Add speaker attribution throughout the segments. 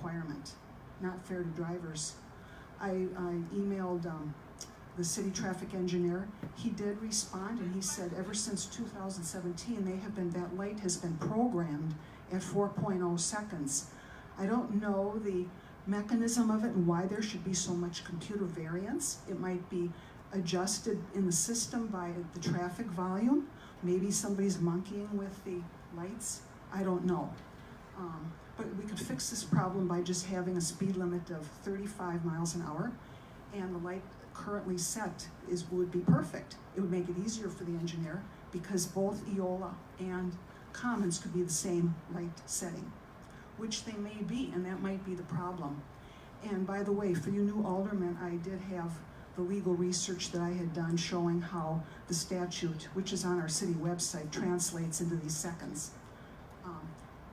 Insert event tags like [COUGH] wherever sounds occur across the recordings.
Speaker 1: requirement, not fair to drivers. I, I emailed, um, the city traffic engineer. He did respond and he said, ever since two thousand seventeen, they have been, that light has been programmed at four oh seconds. I don't know the mechanism of it and why there should be so much computer variance. It might be adjusted in the system by the traffic volume. Maybe somebody's monkeying with the lights. I don't know. Um, but we could fix this problem by just having a speed limit of thirty-five miles an hour. And the light currently set is, would be perfect. It would make it easier for the engineer because both Eola and Commons could be the same light setting, which they may be, and that might be the problem. And by the way, for you new aldermen, I did have the legal research that I had done showing how the statute, which is on our city website, translates into these seconds. Um,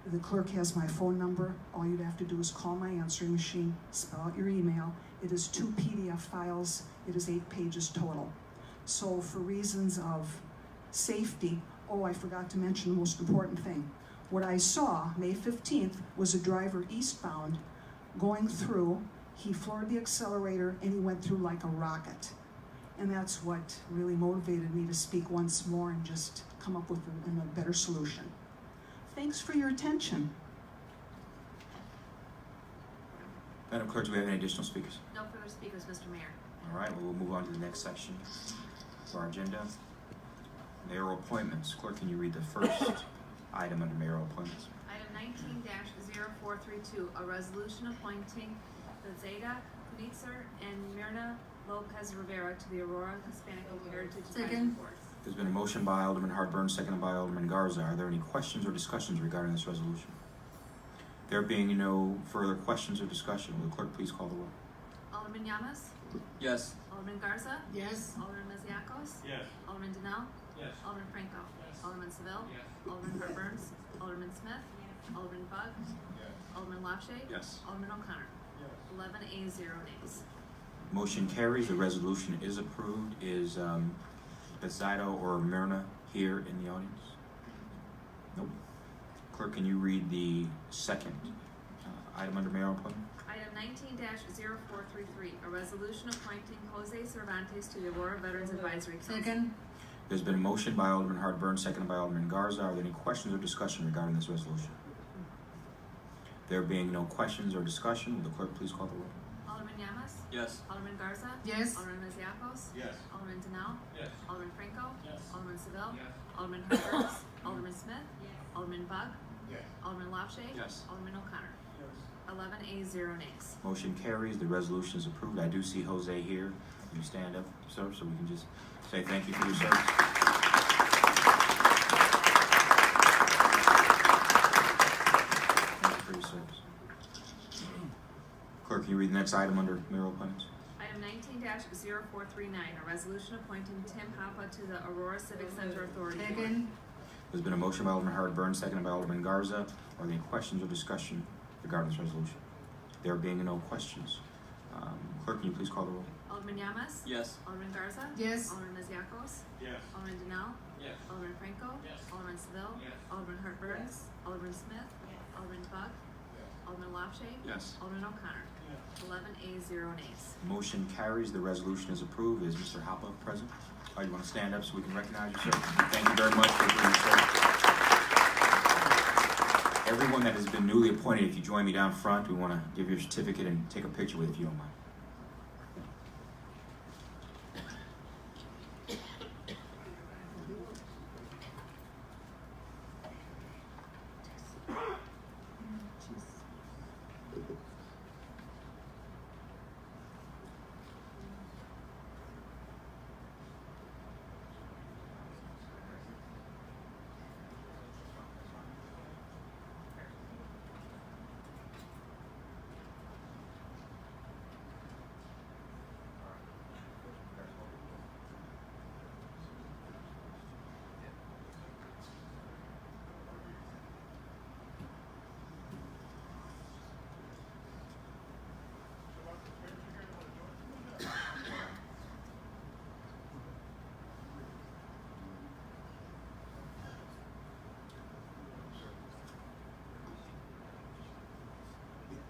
Speaker 1: The clerk has my phone number. All you'd have to do is call my answering machine, spell out your email. It is two PDF files. It is eight pages total. So for reasons of safety, oh, I forgot to mention the most important thing. What I saw, May 15th, was a driver eastbound going through. He floored the accelerator and he went through like a rocket. And that's what really motivated me to speak once more and just come up with a, a better solution. Thanks for your attention.
Speaker 2: Madam Clerk, do we have any additional speakers?
Speaker 3: No further speakers, Mr. Mayor.
Speaker 2: All right, we'll move on to the next section of our agenda. Mayoral appointments. Clerk, can you read the first item under mayoral appointments?
Speaker 3: Item nineteen 432 a resolution appointing the Zeta Kunitzer and Myrna Lopez Rivera to the Aurora Hispanic Heritage Advisory Board.
Speaker 2: There's been a motion by Alderman Hartburns, seconded by Alderman Garza. Are there any questions or discussions regarding this resolution? There being no further questions or discussion, will the clerk please call the roll?
Speaker 3: Alderman Yamas?
Speaker 4: Yes.
Speaker 3: Alderman Garza?
Speaker 5: Yes.
Speaker 3: Alderman Mesiacos?
Speaker 4: Yes.
Speaker 3: Alderman Denal?
Speaker 4: Yes.
Speaker 3: Alderman Franco?
Speaker 4: Yes.
Speaker 3: Alderman Seville?
Speaker 4: Yes.
Speaker 3: Alderman Herb Burns? Alderman Smith? Alderman Bug? Alderman LaShay?
Speaker 2: Yes.
Speaker 3: Alderman O'Connor? Eleven A, zero nays.
Speaker 2: Motion carries. The resolution is approved. Is um, Bezido or Myrna here in the audience? Nope. Clerk, can you read the second uh, item under mayoral appointment?
Speaker 3: Item nineteen 433 a resolution appointing Jose Cervantes to the Aurora Veterans Advisory Council.
Speaker 5: Second?
Speaker 2: There's been a motion by Alderman Hartburns, seconded by Alderman Garza. Are there any questions or discussion regarding this resolution? There being no questions or discussion, will the clerk please call the roll?
Speaker 3: Alderman Yamas?
Speaker 4: Yes.
Speaker 3: Alderman Garza?
Speaker 5: Yes.
Speaker 3: Alderman Mesiacos?
Speaker 4: Yes.
Speaker 3: Alderman Denal?
Speaker 4: Yes.
Speaker 3: Alderman Franco?
Speaker 4: Yes.
Speaker 3: Alderman Seville?
Speaker 4: Yes.
Speaker 3: Alderman Harberts?
Speaker 4: [COUGHS]
Speaker 3: Alderman Smith? Alderman Bug?
Speaker 4: Yes.
Speaker 3: Alderman LaShay?
Speaker 4: Yes.
Speaker 3: Alderman O'Connor? Eleven A, zero nays.
Speaker 2: Motion carries, the resolution is approved. I do see Jose here. Can you stand up, sir, so we can just say thank you for your service? Thank you for your service. Clerk, can you read the next item under mayoral appointments?
Speaker 3: Item nineteen 439 a resolution appointing Tim Papa to the Aurora Civic Center Authority Board.
Speaker 5: Second?
Speaker 2: There's been a motion by Alderman Howard Burns, seconded by Alderman Garza. Are there any questions or discussion regarding this resolution? There being no questions, um, clerk, can you please call the roll?
Speaker 3: Alderman Yamas?
Speaker 4: Yes.
Speaker 3: Alderman Garza?
Speaker 5: Yes.
Speaker 3: Alderman Mesiacos?
Speaker 4: Yes.
Speaker 3: Alderman Denal?
Speaker 4: Yes.
Speaker 3: Alderman Franco?
Speaker 4: Yes.
Speaker 3: Alderman Seville?
Speaker 4: Yes.
Speaker 3: Alderman Hartburns? Alderman Smith? Alderman Bug? Alderman LaShay?
Speaker 4: Yes.
Speaker 3: Alderman O'Connor? Eleven A, zero nays.
Speaker 2: Motion carries, the resolution is approved. Is Mr. Hoppe present? Oh, you want to stand up so we can recognize you, sir? Thank you very much for being here. Everyone that has been newly appointed, if you join me down front, we want to give you a certificate and take a picture with you, if you don't mind.